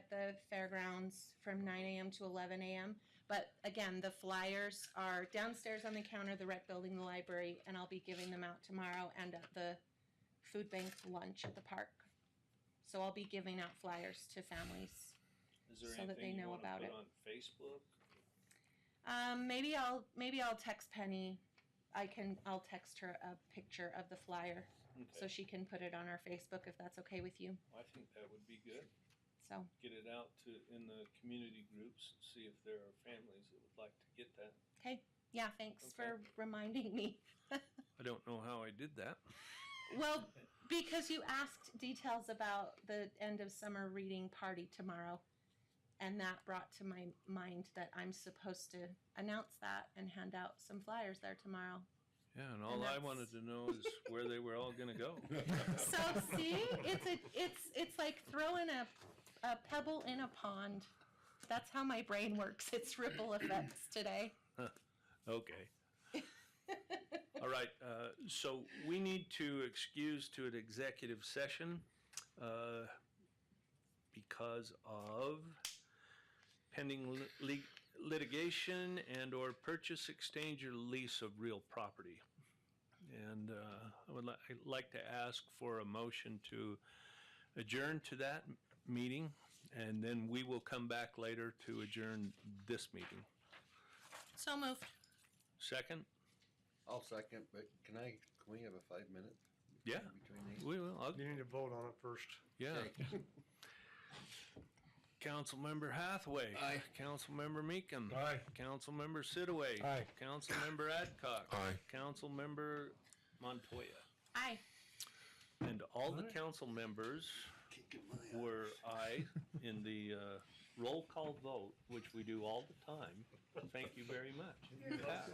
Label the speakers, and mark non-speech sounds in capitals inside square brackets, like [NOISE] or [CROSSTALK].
Speaker 1: the fairgrounds from 9 a.m. to 11 a.m. But again, the flyers are downstairs on the counter, the rec building, the library, and I'll be giving them out tomorrow and at the food bank lunch at the park. So I'll be giving out flyers to families.
Speaker 2: Is there
Speaker 1: so that they
Speaker 2: anything you
Speaker 1: know
Speaker 2: wanna
Speaker 1: about
Speaker 2: put
Speaker 1: it.
Speaker 2: on Facebook?
Speaker 1: Um, maybe I'll maybe I'll text Penny. I can I'll text her a picture of the flyer so
Speaker 2: Okay,
Speaker 1: she can put it on our Facebook if that's okay with you.
Speaker 2: I think that would be good.
Speaker 1: So
Speaker 2: Get it out to, in the community groups, see if there are families that would like to get that.
Speaker 1: yeah, thanks for reminding me.
Speaker 2: I don't know how I did [LAUGHS] that.
Speaker 1: Well, because you asked details about the end of summer reading party tomorrow, and that brought to my mind that I'm supposed to announce that and hand out some flyers there tomorrow.
Speaker 3: Yeah,
Speaker 1: And
Speaker 3: and all I
Speaker 1: that's-
Speaker 3: wanted to know is where they were all gonna go.
Speaker 1: So see, it's a, it's it's like throwing a a pebble in a pond. That's how my brain works. It's ripple effects today.
Speaker 3: Okay. All right, uh, so we need to excuse to an executive session, uh, because of pending li- lit- litigation and or purchase, exchange, or lease of real property. And, uh, I would li- I'd like to ask for a motion to adjourn to that m- meeting, and then we will come back later to adjourn this meeting.
Speaker 1: So moved.
Speaker 3: Second?
Speaker 4: I'll second, but can I, can we have a five minute
Speaker 3: Yeah.
Speaker 4: between these?
Speaker 3: We will. I'll,
Speaker 5: You need to vote on it first.
Speaker 3: yeah.
Speaker 4: Okay.
Speaker 3: Councilmember Hathaway.
Speaker 4: Aye.
Speaker 3: Councilmember Meekum.
Speaker 5: Aye.
Speaker 3: Councilmember Sidaway.
Speaker 5: Aye.
Speaker 3: Councilmember Adcock.
Speaker 4: Aye.
Speaker 3: Councilmember Montoya.
Speaker 1: Aye.
Speaker 3: And all the council members were aye in the uh, roll call vote, which we do all the time. Thank you very much. Yeah.